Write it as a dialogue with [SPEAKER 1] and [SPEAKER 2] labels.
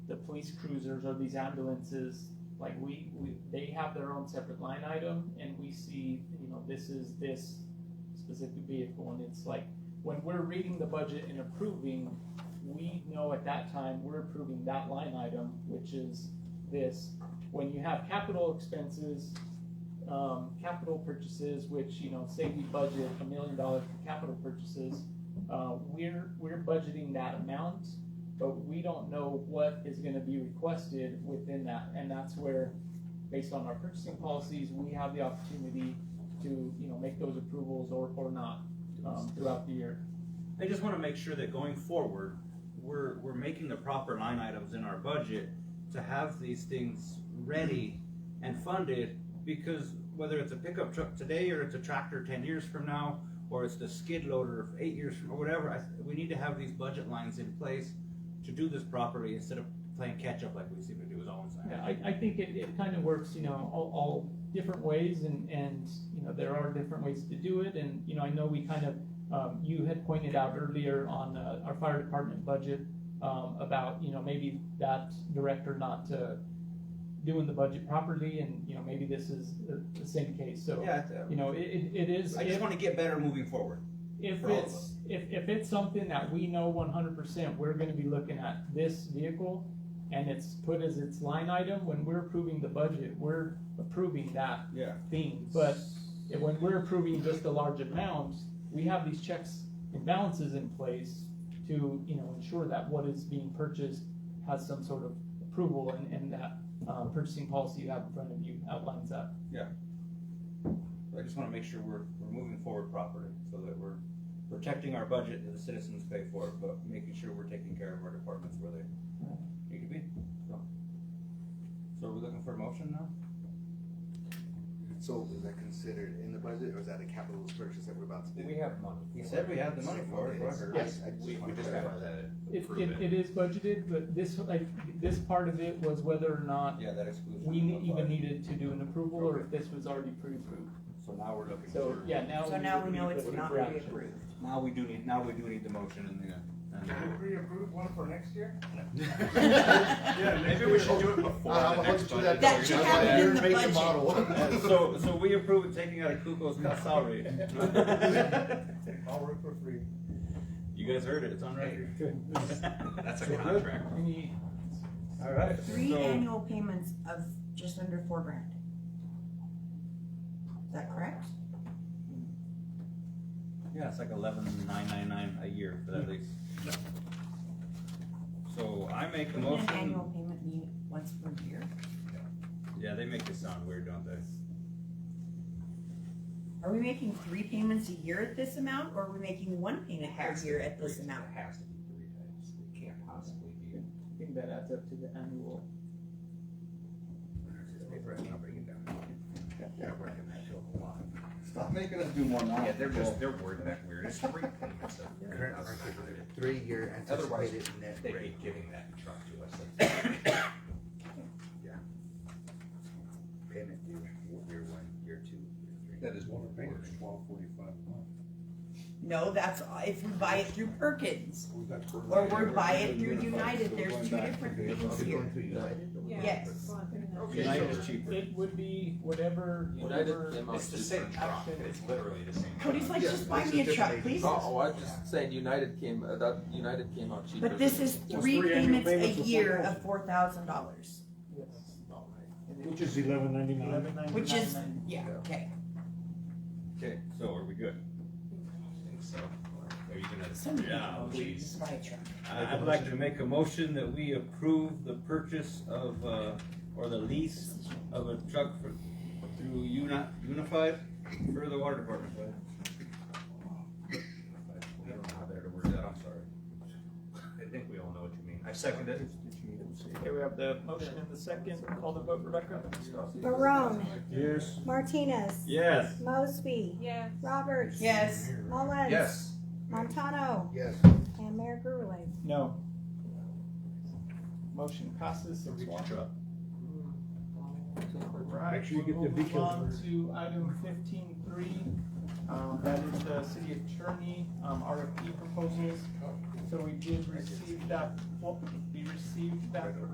[SPEAKER 1] police cruisers or these ambulances, like we, we, they have their own separate line item and we see, you know, this is this specific vehicle and it's like, when we're reading the budget and approving, we know at that time, we're approving that line item, which is this. When you have capital expenses, um, capital purchases, which, you know, say we budget a million dollars for capital purchases, uh, we're, we're budgeting that amount, but we don't know what is gonna be requested within that, and that's where, based on our purchasing policies, we have the opportunity to, you know, make those approvals or, or not, um, throughout the year.
[SPEAKER 2] I just wanna make sure that going forward, we're, we're making the proper line items in our budget to have these things ready and funded, because whether it's a pickup truck today, or it's a tractor ten years from now, or it's the skid loader of eight years from, or whatever, I, we need to have these budget lines in place to do this properly, instead of playing catch-up like we seem to do is all I'm saying.
[SPEAKER 1] Yeah, I, I think it, it kind of works, you know, all, all different ways and, and, you know, there are different ways to do it. And, you know, I know we kind of, um, you had pointed out earlier on, uh, our fire department budget, um, about, you know, maybe that director not, uh, doing the budget properly and, you know, maybe this is the, the same case. So,
[SPEAKER 2] Yeah, um,
[SPEAKER 1] you know, it, it- it is.
[SPEAKER 2] I
[SPEAKER 1] if-
[SPEAKER 2] just wanna get better moving forward.
[SPEAKER 1] if
[SPEAKER 2] for all of
[SPEAKER 1] it's, if, if it's something that we know one hundred percent, we're gonna be looking at this vehicle, and it's put as its line item, when we're approving the budget, we're approving that
[SPEAKER 2] Yeah.
[SPEAKER 1] thing, but if- when we're approving just a large amount, we have these checks and balances in place to, you know, ensure that what is being purchased has some sort of approval, and, and that, uh, purchasing policy you have in front of you outlines that.
[SPEAKER 2] I just wanna make sure we're, we're moving forward properly, so that we're protecting our budget that the citizens pay for, but making sure we're taking care of our departments where they need to be, so. So are we looking for a motion now?
[SPEAKER 3] So is that considered in the budget, or is that a capital purchase that we're about to do?
[SPEAKER 4] We have money.
[SPEAKER 2] He said we had the money for it,
[SPEAKER 3] It's-
[SPEAKER 2] whatever.
[SPEAKER 3] Yes, I
[SPEAKER 4] We,
[SPEAKER 3] just
[SPEAKER 4] we
[SPEAKER 3] want to
[SPEAKER 4] just have
[SPEAKER 3] clarify that.
[SPEAKER 4] to
[SPEAKER 1] It,
[SPEAKER 4] approve
[SPEAKER 1] it, it
[SPEAKER 4] it.
[SPEAKER 1] is budgeted, but this, like, this part of it was whether or not
[SPEAKER 2] Yeah, that exclusion.
[SPEAKER 1] we ne- even
[SPEAKER 2] applies.
[SPEAKER 1] needed to do an approval or if this was already pre-approved.
[SPEAKER 2] So now we're looking
[SPEAKER 1] So,
[SPEAKER 2] for,
[SPEAKER 1] yeah, now.
[SPEAKER 5] So now we know
[SPEAKER 1] need
[SPEAKER 5] it's
[SPEAKER 1] to-
[SPEAKER 5] not
[SPEAKER 1] for action.
[SPEAKER 5] reapproved.
[SPEAKER 2] now we do need, now we do need the motion and the. and the-
[SPEAKER 6] Can we pre-approve one for next year?
[SPEAKER 4] Maybe we should do it before
[SPEAKER 3] Uh,
[SPEAKER 4] the
[SPEAKER 3] I'm
[SPEAKER 4] next
[SPEAKER 3] opposed to that.
[SPEAKER 4] budget.
[SPEAKER 5] That should
[SPEAKER 4] That's
[SPEAKER 5] happen
[SPEAKER 4] why-
[SPEAKER 5] in the
[SPEAKER 3] You're making
[SPEAKER 5] budget.
[SPEAKER 3] model.
[SPEAKER 2] So, so we approve of taking out of Kuko's salary.
[SPEAKER 6] I'll work for free.
[SPEAKER 2] You guys heard it, it's on record.
[SPEAKER 4] That's
[SPEAKER 2] So
[SPEAKER 4] a
[SPEAKER 2] good.
[SPEAKER 4] contract.
[SPEAKER 1] Any-
[SPEAKER 2] Alright,
[SPEAKER 5] Three
[SPEAKER 2] so,
[SPEAKER 5] annual payments of just under four grand. Is that correct?
[SPEAKER 2] yeah, it's like eleven nine nine nine a year for that lease. So I make a
[SPEAKER 5] Wouldn't an
[SPEAKER 2] motion,
[SPEAKER 5] annual payment be once per year?
[SPEAKER 2] yeah, they make it sound weird, don't they?
[SPEAKER 5] Are we making three payments a year at this amount, or are we making one payment per year at this amount?
[SPEAKER 4] It has to be three times. It can't possibly be.
[SPEAKER 1] I think that adds up to the annual.
[SPEAKER 4] Paper, I'll break it down. They're working that bill a lot.
[SPEAKER 2] Stop making us do more now.
[SPEAKER 4] Yeah, they're just, they're wording that weird. It's three payments of
[SPEAKER 3] Current
[SPEAKER 4] $3,500.
[SPEAKER 3] Three-year
[SPEAKER 4] Otherwise,
[SPEAKER 3] anticipated net
[SPEAKER 4] They'd
[SPEAKER 3] rate.
[SPEAKER 4] be giving that truck to us. That's-
[SPEAKER 3] Payment due, year one, year two, year three.
[SPEAKER 4] That is one payment.
[SPEAKER 6] twelve forty-five a month.
[SPEAKER 5] No, that's, if we buy it through Perkins,
[SPEAKER 6] We got to-
[SPEAKER 5] or we buy it through
[SPEAKER 6] Unified, so
[SPEAKER 5] United,
[SPEAKER 6] we're
[SPEAKER 5] there's
[SPEAKER 6] going
[SPEAKER 5] two
[SPEAKER 6] back
[SPEAKER 5] different
[SPEAKER 6] to the-
[SPEAKER 5] things here. Yes.
[SPEAKER 2] United is cheaper.
[SPEAKER 1] It would be whatever, whatever.
[SPEAKER 4] It's the same truck.
[SPEAKER 1] action-
[SPEAKER 4] It's literally the same.
[SPEAKER 5] Cody's
[SPEAKER 4] truck.
[SPEAKER 5] like,
[SPEAKER 3] Yeah,
[SPEAKER 5] just buy
[SPEAKER 3] this
[SPEAKER 5] me
[SPEAKER 3] is
[SPEAKER 5] a truck,
[SPEAKER 3] different.
[SPEAKER 5] please.
[SPEAKER 7] Oh, I was just saying United came, uh, that United came out cheaper.
[SPEAKER 5] But this is
[SPEAKER 6] Well,
[SPEAKER 5] three
[SPEAKER 6] three annual
[SPEAKER 5] payments a
[SPEAKER 6] payments of
[SPEAKER 5] year
[SPEAKER 6] $4,000.
[SPEAKER 5] of four thousand dollars,
[SPEAKER 1] Yes.
[SPEAKER 6] Which is eleven ninety-nine.
[SPEAKER 1] $11.99.
[SPEAKER 5] which is, yeah, okay.
[SPEAKER 2] Okay, so are we good?
[SPEAKER 4] I think So, are you gonna?
[SPEAKER 5] Somebody
[SPEAKER 2] Yeah,
[SPEAKER 5] would
[SPEAKER 2] please.
[SPEAKER 5] just buy a truck.
[SPEAKER 2] I- I'd like to make a motion that we approve the purchase of, uh, or the lease of a truck for, through Uni- Unified for the water department.
[SPEAKER 4] I don't know how better to word that. I'm sorry. I think we all know what you mean. I second it.
[SPEAKER 1] Okay, we have the motion and the second. Call the vote, Rebecca.
[SPEAKER 8] Barone,
[SPEAKER 2] Yes.
[SPEAKER 8] Martinez,
[SPEAKER 2] Yes.
[SPEAKER 8] Mosby,
[SPEAKER 9] Yeah.
[SPEAKER 8] Roberts,
[SPEAKER 5] Yes.
[SPEAKER 8] Mullins,
[SPEAKER 4] Yes.
[SPEAKER 8] Montano,
[SPEAKER 3] Yes.
[SPEAKER 8] and Mayor Gurley.
[SPEAKER 1] No. Motion passes six one. Alright,
[SPEAKER 6] Make sure you get
[SPEAKER 1] we'll
[SPEAKER 6] the
[SPEAKER 1] move
[SPEAKER 6] details
[SPEAKER 1] on
[SPEAKER 6] first.
[SPEAKER 1] to item fifteen three, um, that is the city attorney, um, RFP proposals. So we did receive that, we received that